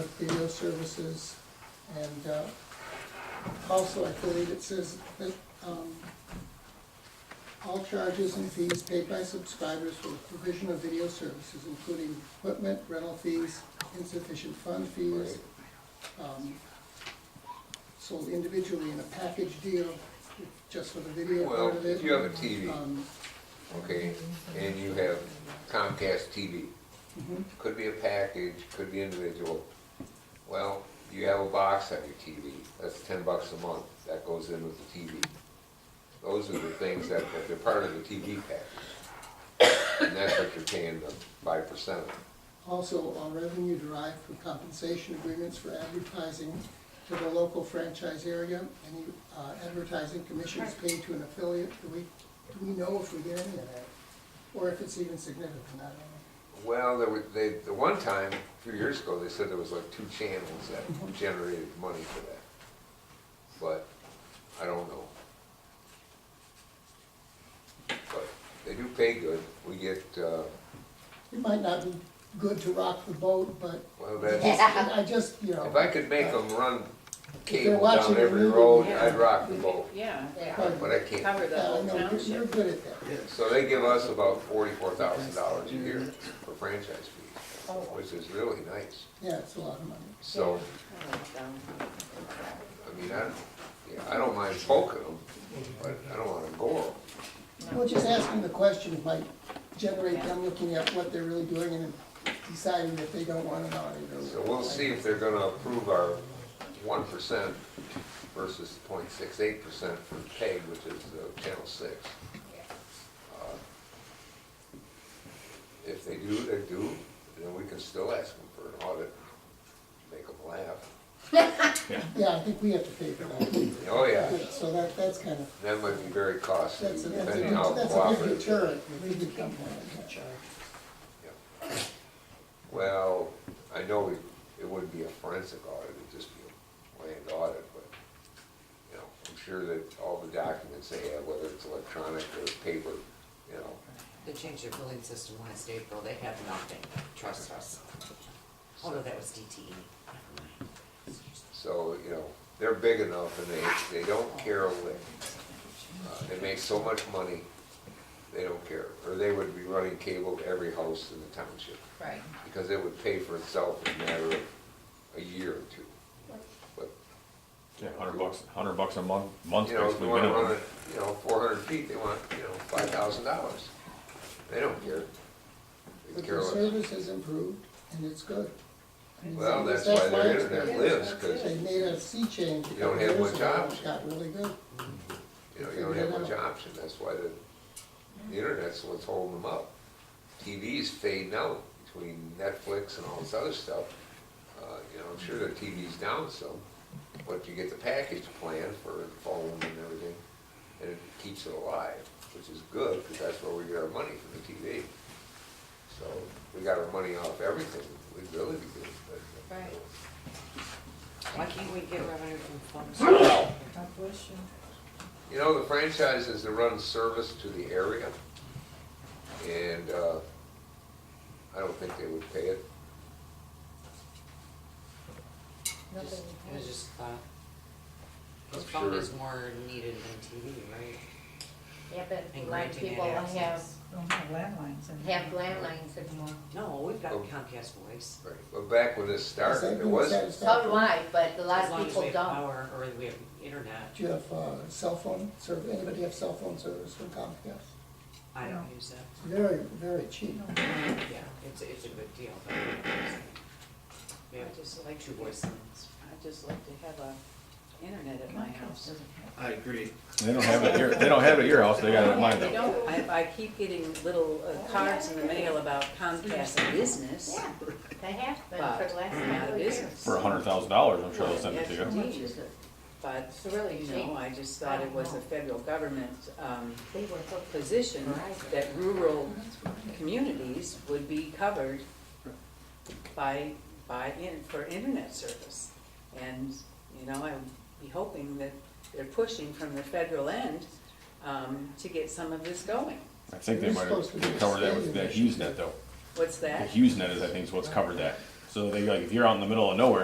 video services. And uh, also, I believe it says that um, all charges and fees paid by subscribers for the provision of video services, including equipment, rental fees, insufficient fund fees, um, sold individually in a package deal, just for the video part Well, of it. if you have a TV, Um, okay, and you have Comcast TV, mhm, could be a package, could be individual. Well, you have a box on your TV, that's ten bucks a month, that goes in with the TV. Those are the things that, that they're part of the TV package. And that's what you're paying the five percent of. Also, all revenue derived from compensation agreements for advertising to the local franchise area, any uh, advertising commissions paid to an affiliate, do we, do we know if we get any of that? Or if it's even significant, I don't know. Well, there were, they, the one time, a few years ago, they said there was like two channels that generated money for that. But I don't know. But they do pay good. We get, uh, It might not be good to rock the boat, but well, I that's, just- I just, you know. if I could make them run they're cable watching down the every movie, road, yeah. I'd rock the boat, Yeah, but- but I can't. cover the Yeah, I whole know, you're- You're township. good at that. So they give us about forty-four thousand dollars a year for franchise fees, which is really nice. Yeah, it's a lot of money. So, I mean, I, don't- yeah, I don't mind poking them, but I don't wanna gore them. Well, just asking the question might generate them looking at what they're really doing and deciding that they don't want it on it. or- So we'll see if they're gonna approve our one percent versus 0.68 percent for PEG, which is uh, Channel Six. Uh, If they do, they do, and then we can still ask them for an audit, make them laugh. Yeah, I think we have to pay for that. Oh, yeah, So that, that's kind of, that might be very costly, that's a, that's depending how a, that's a big cooperative. deterrent. if we could come up with that. Well, I know it, it wouldn't be a forensic audit, it'd just be a land audit, but, you know, I'm sure that all the documents they have, whether it's electronic or paper, you know, They changed their billing system last April, they have nothing, trust us. Oh no, that was DTE, never mind. so, you know, they're big enough and they, they don't care a lick. Uh, They make so much money, they don't care, or they would be running cable to every house in the township. Right. because it would pay for itself in a matter of a year or two. But, Yeah, hundred bucks, hundred bucks a month, month you know, if basically you wanna run minimum. it, you know, four hundred feet, they want, you know, five thousand dollars. They don't care. They But care the less. service has improved and it's good. I mean, Well, that's that's why why their it's internet good. lives, cause, They made a sea change. You don't have much years ago, option. It got really good. you know, you don't have much option, that's why the, the internet's what's holding them up. TV's fading out between Netflix and all this other stuff. Uh, you know, I'm sure their TV's down some, but if you get the package plan for the phone and everything, and it keeps it alive, which is good, because that's where we get our money from the TV. So, we got our money off everything, we'd really be good, but. you know, Right. Why can't we get revenue from phones? You know, the franchise is to run service to the area, and uh, I don't think they would pay it. Just- It was just thought. 'Cause I'm phone sure- is more needed than TV, right? Yeah, but And a lot of granting people that have, access. have Don't have landlines anymore. landlines anymore. No, we've got Oh. Comcast voice. Right. But back when this Is that started, it good? was, Is that- So do I, but a lot As of long as we people have don't. power or we have internet, Do you have, uh, cell phone service? Anybody have cell phone service from Comcast? I don't use that. Very, very cheap. Yeah, it's, it's a good deal, but I don't use it. We have just like two voice lines. I'd just like to have a internet at my house. I agree. They don't have it here, they don't have it at your house, they got it at mine They though. don't, I, I keep getting little uh, cards in the mail about Comcast and business. Yeah, they have been for But the last not couple a of years. business. For a hundred thousand dollars, I'm sure they'll send it to Yes, you. indeed. But, It's really you know, cheap. I just thought it was a federal government, um, They were hooked. position that rural communities would be covered by, by, in- for internet service. And, you know, I'd be hoping that they're pushing from the federal end um, to get some of this going. I think they might have covered that with that HughesNet though. What's The that? HughesNet is, I think, is what's covered that. So they like, if you're out in the middle of nowhere,